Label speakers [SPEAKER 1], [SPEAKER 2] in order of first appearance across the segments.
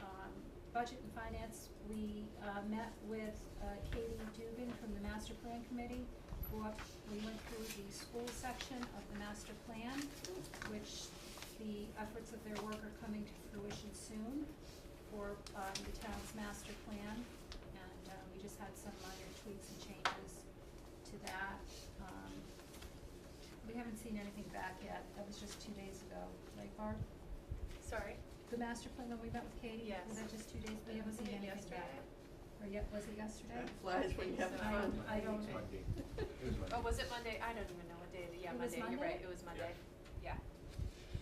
[SPEAKER 1] Um, Budget and Finance, we uh, met with uh, Katie Dugan from the Master Plan Committee. Walked- We went through the school section of the master plan, which the efforts of their work are coming to fruition soon for um, the town's master plan. And uh, we just had some minor tweaks and changes to that. Um, We haven't seen anything back yet. That was just two days ago, right, Barb?
[SPEAKER 2] Sorry?
[SPEAKER 1] The master plan when we met with Katie?
[SPEAKER 2] Yes.
[SPEAKER 1] Was that just two days? We haven't seen
[SPEAKER 2] Yeah,
[SPEAKER 1] anything
[SPEAKER 2] yesterday.
[SPEAKER 1] back. Or yet, was it yesterday?
[SPEAKER 3] That flies when you have
[SPEAKER 2] So-
[SPEAKER 3] fun.
[SPEAKER 1] I don't-
[SPEAKER 3] It's Monday. It was Monday.
[SPEAKER 2] Oh, was it Monday? I don't even know what day, it is. yeah,
[SPEAKER 1] It was
[SPEAKER 2] Monday, you're right,
[SPEAKER 1] Monday?
[SPEAKER 2] it was Monday. Yeah.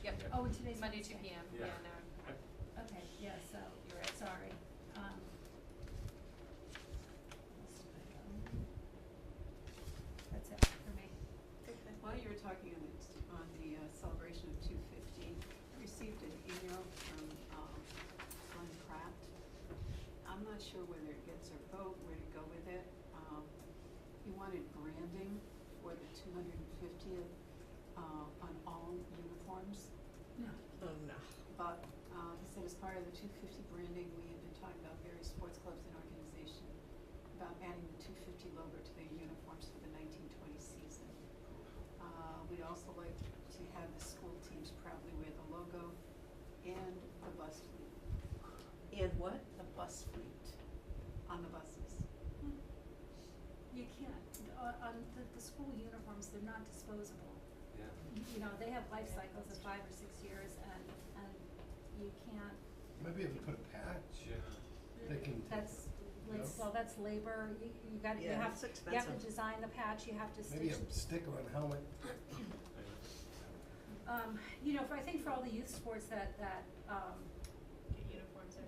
[SPEAKER 2] Yep.
[SPEAKER 3] Yeah.
[SPEAKER 1] Oh, and today's
[SPEAKER 2] Monday, two
[SPEAKER 1] Wednesday.
[SPEAKER 2] P M,
[SPEAKER 3] Yeah.
[SPEAKER 2] yeah, no.
[SPEAKER 1] Okay, yeah, so,
[SPEAKER 2] You're right.
[SPEAKER 1] sorry. Um, That's it for me.
[SPEAKER 4] While you were talking on the, t- on the uh, celebration of two fifteen, I received an email from, um, Glenn Pratt. I'm not sure whether it gets our vote, where to go with it. Um, he wanted branding for the two hundred and fiftieth, uh, on all uniforms.
[SPEAKER 3] Oh, no.
[SPEAKER 4] But, uh, he said as part of the two fifty branding, we had been talking about various sports clubs and organization about adding the two fifty logo to their uniforms for the nineteen twenty season. Uh, we'd also like to have the school teams proudly wear the logo and the bus fleet,
[SPEAKER 3] And what?
[SPEAKER 4] the bus fleet on the buses.
[SPEAKER 1] You can't, uh, on the, the school uniforms, they're not disposable.
[SPEAKER 3] Yeah.
[SPEAKER 1] You- You know, they have life cycles of five or six years and, and you can't,
[SPEAKER 5] Maybe if you put a patch, they can.
[SPEAKER 1] that's, like,
[SPEAKER 5] Yeah.
[SPEAKER 1] well, that's labor, you, you gotta, you
[SPEAKER 3] Yeah,
[SPEAKER 1] have,
[SPEAKER 3] it's
[SPEAKER 1] you have
[SPEAKER 3] expensive.
[SPEAKER 1] to design the patch, you have to stitch.
[SPEAKER 5] Maybe a sticker on a helmet.
[SPEAKER 1] Um, you know, for, I think for all the youth sports that, that, um,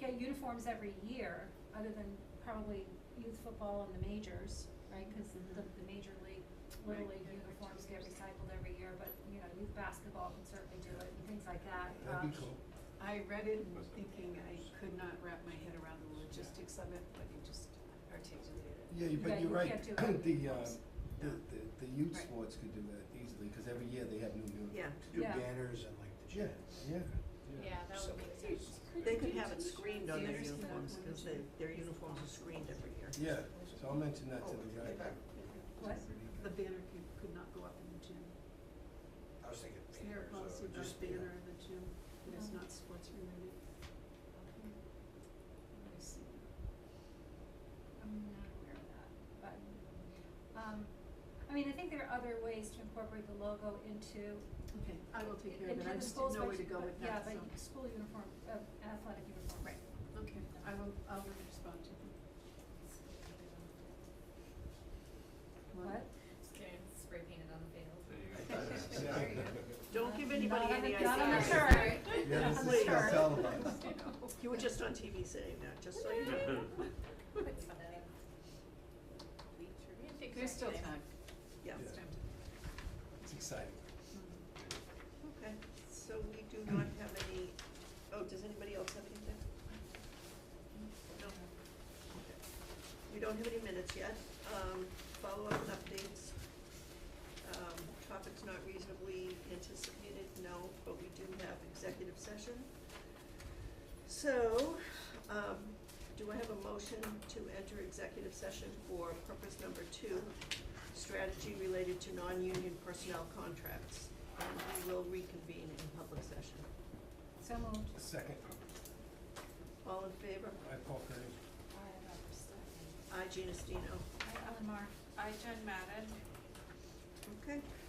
[SPEAKER 2] Get uniforms every
[SPEAKER 1] get uniforms every year, other than probably youth football and the majors, right? Cause the, the major league, little
[SPEAKER 4] Right,
[SPEAKER 1] league
[SPEAKER 4] yeah, every
[SPEAKER 1] uniforms
[SPEAKER 4] two
[SPEAKER 1] get
[SPEAKER 4] years.
[SPEAKER 1] recycled every year, but, you know, youth basketball can certainly do it and things like that.
[SPEAKER 5] That'd be
[SPEAKER 1] Um,
[SPEAKER 5] cool.
[SPEAKER 4] I read it and
[SPEAKER 3] Was it-
[SPEAKER 4] thinking I could not wrap my head around the logistics of it, but you just articulated it.
[SPEAKER 5] Yeah, you-
[SPEAKER 1] Yeah,
[SPEAKER 5] but
[SPEAKER 1] you
[SPEAKER 5] you're right.
[SPEAKER 1] can't do it.
[SPEAKER 5] The, um, the,
[SPEAKER 4] No.
[SPEAKER 5] the, the youth
[SPEAKER 4] Right.
[SPEAKER 5] sports could do that easily, cause every year they have new uniforms.
[SPEAKER 6] Yeah.
[SPEAKER 7] do
[SPEAKER 1] Yeah.
[SPEAKER 7] banners and like the
[SPEAKER 5] Yeah,
[SPEAKER 7] chants.
[SPEAKER 5] yeah.
[SPEAKER 2] Yeah, that would make sense.
[SPEAKER 6] They could have it screened on their
[SPEAKER 4] Theaters can have
[SPEAKER 6] uniforms,
[SPEAKER 4] one
[SPEAKER 6] because
[SPEAKER 4] too.
[SPEAKER 6] they, their uniforms are screened every year.
[SPEAKER 5] Yeah, so I'll mention that to
[SPEAKER 6] Oh,
[SPEAKER 5] the
[SPEAKER 6] okay.
[SPEAKER 5] guy.
[SPEAKER 1] What?
[SPEAKER 4] The banner could, could not go up in the gym.
[SPEAKER 7] I was thinking
[SPEAKER 4] Isn't there a
[SPEAKER 7] banners
[SPEAKER 4] policy
[SPEAKER 7] or
[SPEAKER 4] about
[SPEAKER 7] just.
[SPEAKER 4] banner in the gym that is
[SPEAKER 1] No.
[SPEAKER 4] not sports related? I see.
[SPEAKER 1] I'm not aware of that, but, um, I mean, I think there are other ways to incorporate the logo into,
[SPEAKER 4] Okay, I will take care of
[SPEAKER 1] into
[SPEAKER 4] it, I
[SPEAKER 1] the
[SPEAKER 4] just
[SPEAKER 1] schools,
[SPEAKER 4] didn't know where
[SPEAKER 1] but,
[SPEAKER 4] to go
[SPEAKER 1] but,
[SPEAKER 4] with
[SPEAKER 1] yeah,
[SPEAKER 4] that, so.
[SPEAKER 1] but school uniform, uh, athletic uniforms. Right.
[SPEAKER 4] Okay, I will, I will respond to them.
[SPEAKER 1] What?
[SPEAKER 2] Just kidding, spray painted on the panels.
[SPEAKER 3] There you go.
[SPEAKER 5] There you go.
[SPEAKER 6] Don't
[SPEAKER 1] Uh,
[SPEAKER 6] give
[SPEAKER 1] Not
[SPEAKER 6] anybody
[SPEAKER 1] on the-
[SPEAKER 6] any
[SPEAKER 1] not on the
[SPEAKER 6] ideas.
[SPEAKER 1] shirt.
[SPEAKER 5] Yeah, this
[SPEAKER 1] I'm
[SPEAKER 5] is
[SPEAKER 1] sure.
[SPEAKER 5] still televised.
[SPEAKER 6] You were just on TV saying that, just so you know.
[SPEAKER 4] There's still time.
[SPEAKER 6] Yeah,
[SPEAKER 5] Yeah.
[SPEAKER 4] It's time to.
[SPEAKER 5] It's exciting.
[SPEAKER 4] Hmm.
[SPEAKER 6] okay. So we do not have any, oh, does anybody else have anything? No? Okay. We don't have any minutes yet. Um, follow-up and updates. Um, topics not reasonably anticipated, no, but we do have executive session. So, um, do I have a motion to enter executive session for purpose number two, strategy related to non-union personnel contracts? And we will reconvene in public session.
[SPEAKER 1] So moved.
[SPEAKER 5] Second,
[SPEAKER 6] All in favor?
[SPEAKER 5] I uh, Paul Kearney.
[SPEAKER 6] I, Gina Stino.
[SPEAKER 1] Hi, Ellen Mar.
[SPEAKER 2] I, Jen Madden.
[SPEAKER 6] Okay.